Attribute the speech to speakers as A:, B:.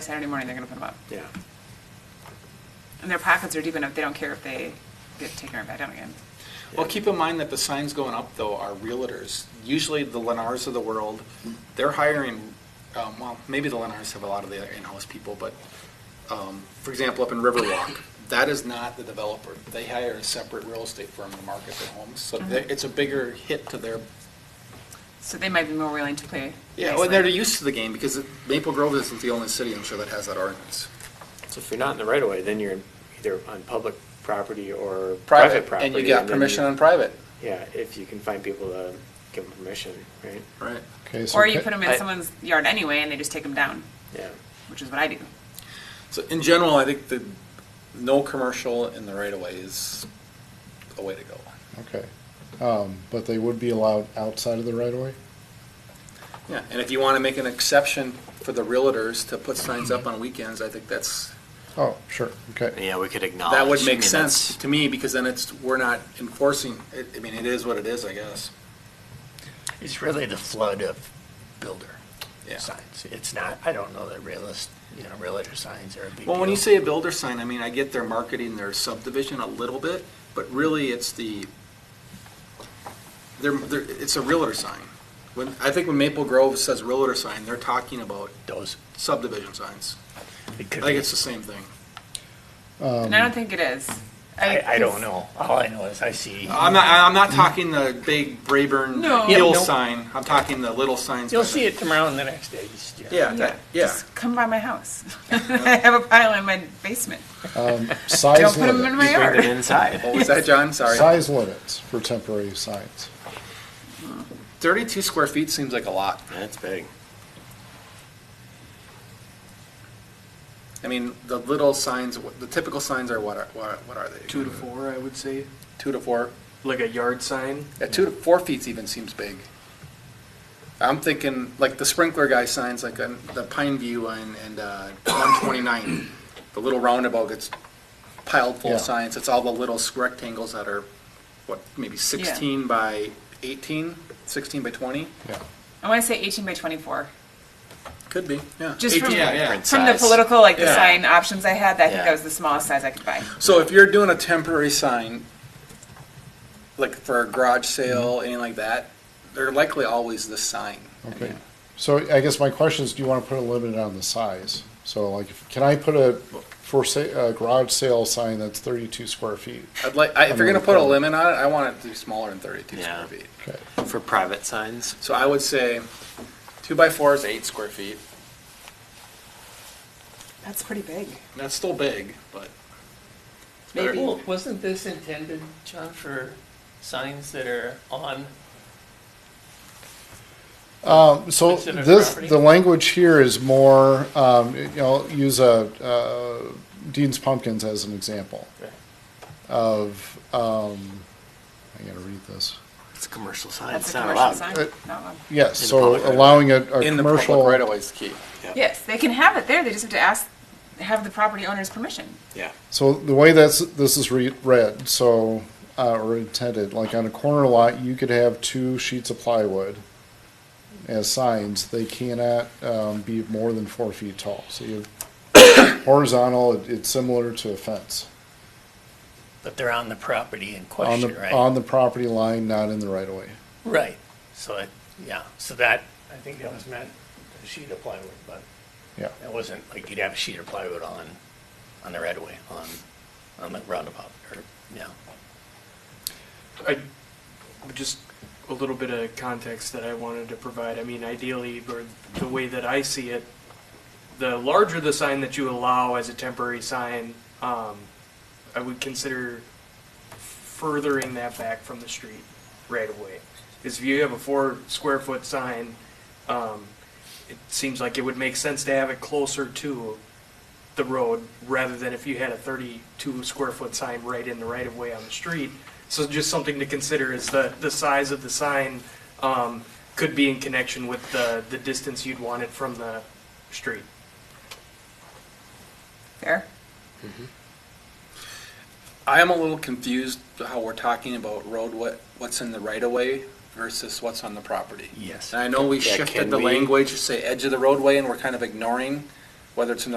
A: Saturday morning, they're gonna put them up.
B: Yeah.
A: And their pockets are deep enough, they don't care if they get taken right back down again.
C: Well, keep in mind that the signs going up though are realtors, usually the Lennars of the world. They're hiring, um, well, maybe the Lennars have a lot of their in-house people, but, um, for example, up in Riverwalk, that is not the developer. They hire a separate real estate firm to market their homes, so they- it's a bigger hit to their,
A: So they might be more willing to play.
C: yeah,
A: nice
C: well, they're
A: land.
C: used to the game because Maple Grove isn't the only city, I'm sure, that has that ordinance.
B: So if you're not in the right of way, then you're either on public property or private
C: Private,
B: property.
C: and you got
B: then
C: permission on private.
B: Yeah, if you can find people to give them permission, right?
C: Right.
D: Okay, so
A: Or you
D: ca-
A: put them in
B: I-
A: someone's yard anyway and they just take them down,
B: Yeah.
A: which is what I do.
C: So in general, I think the no commercial in the right of way is a way to go.
D: Okay, um, but they would be allowed outside of the right of way?
C: Yeah, and if you want to make an exception for the realtors to put signs up on weekends, I think that's,
D: Oh, sure, okay,
E: Yeah, we could acknowledge.
C: Oh, that would
E: I
C: make
E: mean,
C: sense to me, because then it's, we're not enforcing, it. I mean, it is what it is, I guess.
F: It's really the flood of builder
C: Yeah.
F: signs. It's not, I don't know that realist, you know, realtor signs are a big deal.
C: Well, when you say a builder sign, I mean, I get they're marketing their subdivision a little bit, but really it's the, they're, they're, it's a realtor sign. When, I think when Maple Grove says realtor sign, they're talking about
F: Those,
C: subdivision signs.
F: it
C: I
F: could
C: think
F: be,
C: it's the same thing.
A: And I don't think it is.
F: I, I don't know. All I know is I see,
C: I'm not, I'm not talking the big Brayburn
A: No. Yeah,
C: Hill
F: no.
C: sign, I'm talking the little signs.
F: you'll
C: by the-
F: see it tomorrow and the next day. you just-
C: Yeah,
A: Yeah,
C: that, yeah.
A: Just come by my house. I have a pile in my basement. Don't
D: Um, size
A: put them in
D: limits,
A: my
E: You bring them
A: yard.
E: inside.
C: What was that, John? Sorry.
D: size limits for temporary signs.
C: Thirty-two square feet seems like a lot.
E: That's big.
C: I mean, the little signs, the typical signs are what are, what are- what are they?
G: two to four, I would say,
C: Two to four.
G: like a yard sign.
C: Yeah, two to four feet even seems big. I'm thinking like the sprinkler guy signs like on the Pine View and, and uh, 129. The little roundabout gets piled full of
D: Yeah.
C: signs. It's all the little s- rectangles that are, what, maybe 16 by 18, 16 by 20?
D: Yeah,
A: I wanna say eighteen by twenty-four.
C: Could be, yeah.
A: Just
C: 18,
A: from-
C: yeah, yeah.
A: From the
E: Size.
A: political, like the
C: Yeah.
A: sign options I had, I think
E: Yeah.
A: that was the smallest size I could buy.
C: So if you're doing a temporary sign, like for a garage sale, anything like that, they're likely always this sign.
D: okay. So I guess my question is, do you want to put a limit on the size? So like, if- can I put a for sa- a garage sale sign that's thirty-two square feet?
C: I'd like, I- if you're gonna put a limit on it, I want it to be smaller than thirty-two
E: Yeah.
C: square feet.
D: Okay,
E: For private signs,
C: So I would say two by four is eight square feet.
A: That's pretty big.
C: That's still big, but. it's better-
H: Maybe, wasn't this intended, John, for signs that are on,
D: um, so
H: It's in a
D: this,
H: property.
D: the language here is more, um, you know, use a, uh, Dean's Pumpkins as an example of, um, I gotta read this.
E: it's a commercial sign.
A: That's
E: It's
A: a
E: not
A: commercial
E: allowed.
A: sign.
D: Uh,
A: Not allowed.
D: Yes,
E: In the
D: so
E: public right-of-way.
D: allowing a, a
C: In the public
D: commercial.
C: right away is key.
A: Yes, they can have it there, they just have to ask, have the property owner's permission.
E: Yeah.
D: So the way that's, this is re- read, so, uh, or intended, like on a corner lot, you could have two sheets of plywood as signs. They cannot, um, be more than four feet tall. So you have horizontal, it- it's similar to a fence.
F: But they're on the property in
D: On
F: question,
D: the,
F: right?
D: on the property line, not in the right of way.
F: Right, so it, yeah, so that, I think that was meant a sheet of plywood, but
D: Yeah.
F: it wasn't like you'd have a sheet of plywood on, on the right of way, on, on the roundabout, or, yeah.
G: I, just a little bit of context that I wanted to provide. I mean, ideally, or the way that I see it, the larger the sign that you allow as a temporary sign, um, I would consider furthering that back from the street right away. Because if you have a four square foot sign, um, it seems like it would make sense to have it closer to the road rather than if you had a 32 square foot sign right in the right of way on the street. So just something to consider is the, the size of the sign um, could be in connection with the, the distance you'd want it from the street.
A: There?
C: I am a little confused how we're talking about road, what, what's in the right of way versus what's on the property.
F: Yes.
C: And I know we
E: Yeah,
C: shifted
E: can
C: the
E: we-
C: language, to say edge of the roadway, and we're kind of ignoring whether it's in the